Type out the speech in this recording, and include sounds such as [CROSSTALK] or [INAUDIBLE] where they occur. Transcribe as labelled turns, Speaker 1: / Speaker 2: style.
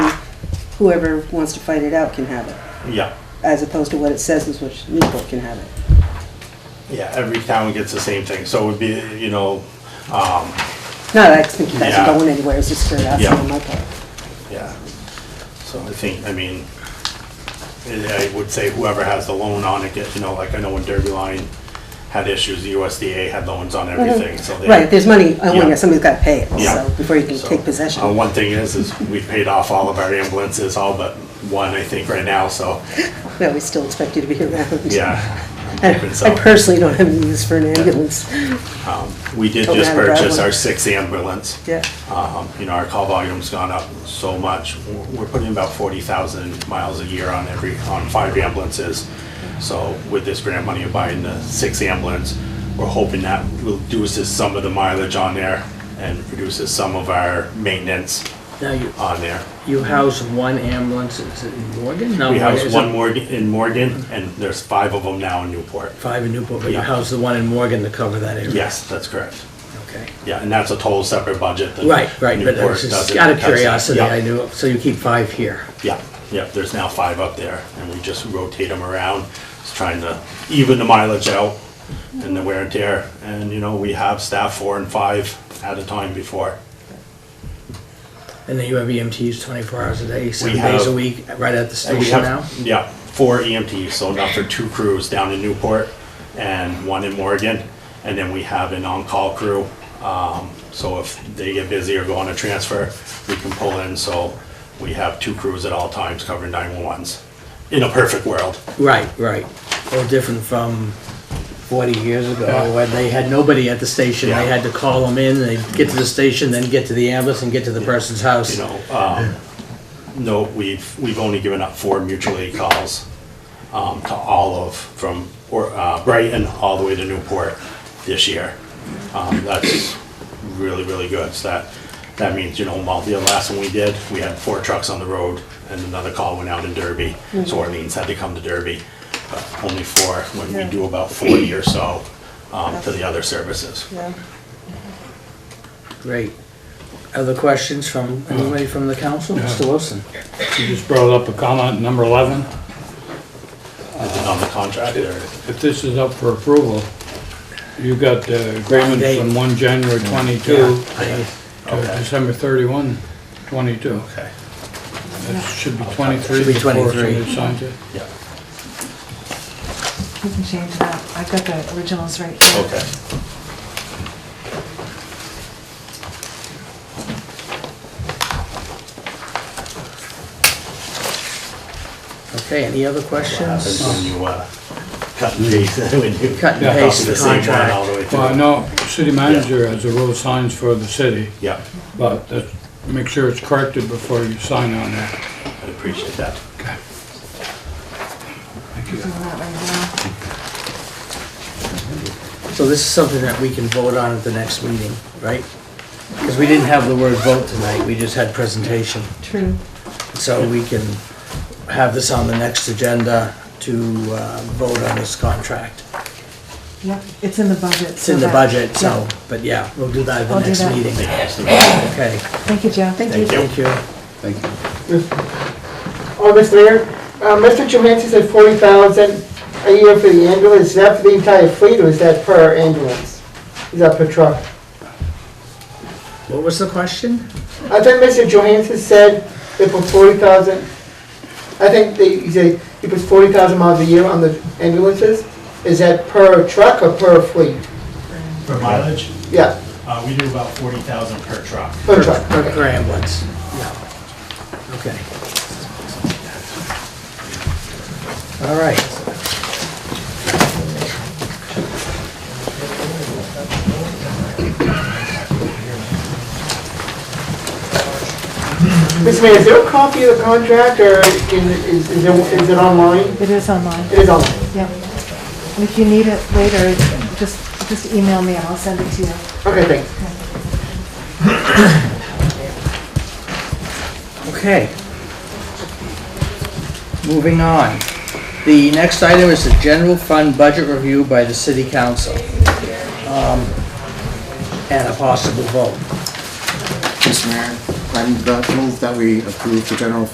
Speaker 1: whoever wants to fight it out can have it,
Speaker 2: Yeah,
Speaker 1: as opposed to what it says is which Newport can have it.
Speaker 2: yeah, every town gets the same thing, so it would be, you know, um,
Speaker 1: Not that I think you guys
Speaker 2: Yeah.
Speaker 1: are going anywhere, it's just curiosity
Speaker 2: Yeah.
Speaker 1: on my part.
Speaker 2: yeah. So I think, I mean, I I would say whoever has the loan on it, gets you know, like I know when Derby Line had issues, the USDA had loans on everything, so they.
Speaker 1: Mhm. Right, there's money, I
Speaker 2: Yeah.
Speaker 1: want, somebody's gotta pay it,
Speaker 2: Yeah.
Speaker 1: so, before you can
Speaker 2: So,
Speaker 1: take possession.
Speaker 2: uh, One thing is, is we paid off all of our ambulances, all but one, I think, right now, so,
Speaker 1: Well, we still expect you to be around.
Speaker 2: yeah. I'm hoping so.
Speaker 1: I personally don't have any use for an ambulance,
Speaker 2: Um, We did
Speaker 1: Don't
Speaker 2: just
Speaker 1: have a bad
Speaker 2: purchase
Speaker 1: one.
Speaker 2: our sixth ambulance.
Speaker 1: yeah.
Speaker 2: Um, You know, our call volume's gone up so much. We're- We're putting about 40,000 miles a year on every, on five ambulances. So with this grant money of buying the six ambulance, we're hoping that reduces some of the mileage on there and reduces some of our maintenance
Speaker 3: Now, you,
Speaker 2: on there.
Speaker 3: you house one ambulance, is it in Morgan? No,
Speaker 2: We
Speaker 3: is
Speaker 2: house
Speaker 3: it
Speaker 2: one Morgan, in Morgan, and there's five of them now in Newport.
Speaker 3: Five in Newport, but you
Speaker 2: Yeah.
Speaker 3: house the one in Morgan to cover that area?
Speaker 2: Yes, that's correct.
Speaker 3: Okay.
Speaker 2: Yeah, and that's a total separate budget. that
Speaker 3: Right, right, but
Speaker 2: Newport
Speaker 3: it's just
Speaker 2: doesn't
Speaker 3: out of
Speaker 2: touch that.
Speaker 3: curiosity,
Speaker 2: Yeah.
Speaker 3: I knew, so you keep five here.
Speaker 2: Yeah, yeah, there's now five up there, and we just rotate them around, just trying to even the mileage out and the wear and tear. And, you know, we have staff four and five at a time before.
Speaker 3: And then you have EMTs twenty-four hours a day, seven
Speaker 2: have-
Speaker 3: days a week, right at the
Speaker 2: And we
Speaker 3: station now?
Speaker 2: have, yeah, four EMTs, so enough for two crews down in Newport and one in Morgan. And then we have an on-call crew, um, so if they get busy or go on a transfer, we can pull in, so we have two crews at all times covering 911s. In a perfect world,
Speaker 3: Right, right. Well, different from forty years
Speaker 2: Yeah.
Speaker 3: ago, where they had nobody at the station,
Speaker 2: Yeah.
Speaker 3: they had to call them in, they'd get to the station, then get to the ambulance and get to the person's house.
Speaker 2: you know, um, no, we've, we've only given up four mutual aid calls, um, to all of, from, or, uh, Brighton all the way to Newport this year. Um, that's really, really good, so that, that means, you know, while the last one we did, we had four trucks on the road, and another call went out in Derby, so Orleans had to come to Derby, but only four, when we do about forty or so, um, to the other services.
Speaker 1: Yeah.
Speaker 3: Great. Other questions from, anybody from the council? Mr. Wilson?
Speaker 4: You just brought up a comment, number 11.
Speaker 2: Is it on the contract, or?
Speaker 4: If this is up for approval, you got the agreement
Speaker 3: Date.
Speaker 4: from 1 January 22
Speaker 3: I-
Speaker 4: to
Speaker 2: Okay.
Speaker 4: December 31, 22.
Speaker 2: Okay.
Speaker 4: It should be 23.
Speaker 3: Should be
Speaker 4: before
Speaker 3: 23.
Speaker 4: somebody signs it.
Speaker 2: Yeah,
Speaker 5: You can change that. I've got the originals right here.
Speaker 2: okay.
Speaker 3: Okay, any other
Speaker 2: happens
Speaker 3: questions?
Speaker 2: when you uh, cut and paste, [LAUGHS] when you
Speaker 3: Cut and
Speaker 2: copy
Speaker 3: paste the
Speaker 2: same one
Speaker 3: contract.
Speaker 2: all the way through.
Speaker 4: Well, I know city manager has the road signs for the city,
Speaker 2: Yeah,
Speaker 4: but that- make sure it's corrected before you sign on that.
Speaker 2: I appreciate that.
Speaker 4: Okay. Thank you.
Speaker 5: Doing that right now.
Speaker 3: So this is something that we can vote on at the next meeting, right? Because we didn't have the word vote tonight, we just had presentation.
Speaker 1: True.
Speaker 3: So we can have this on the next agenda to uh, vote on this contract.
Speaker 5: Yep, it's in the budget.
Speaker 3: It's in the budget, so, but yeah, we'll do that at the
Speaker 5: I'll do
Speaker 3: next
Speaker 5: that.
Speaker 3: meeting.
Speaker 2: Thank
Speaker 3: Okay,
Speaker 5: Thank you, Joe. Thank you.
Speaker 3: thank you.
Speaker 6: Thank you.
Speaker 7: August Mayor, uh, Mr. Johansson said forty thousand a year for the ambulance, is that for the entire fleet or is that per ambulance? Is that per truck?
Speaker 3: What was the question?
Speaker 7: I think Mr. Johansson said they put forty thousand, I think they, he said he puts forty thousand miles a year on the ambulances, is that per truck or per fleet?
Speaker 2: For mileage,
Speaker 7: Yeah,
Speaker 2: uh, we do about 40,000 per truck.
Speaker 7: per truck,
Speaker 3: Per
Speaker 7: okay.
Speaker 3: per ambulance, yeah. Okay. All right.
Speaker 7: Mr. Mayor, is there a copy of the contract or is, is, is there- is it online?
Speaker 5: It is online.
Speaker 7: It is online,
Speaker 5: Yep. And if you need it later, just, just email me and I'll send it to you.
Speaker 7: okay, thanks.
Speaker 3: Okay. Moving on. The next item is the general fund budget review by the city council. Um, And a possible vote.
Speaker 6: Mr. Mayor, I move that we approve the general fund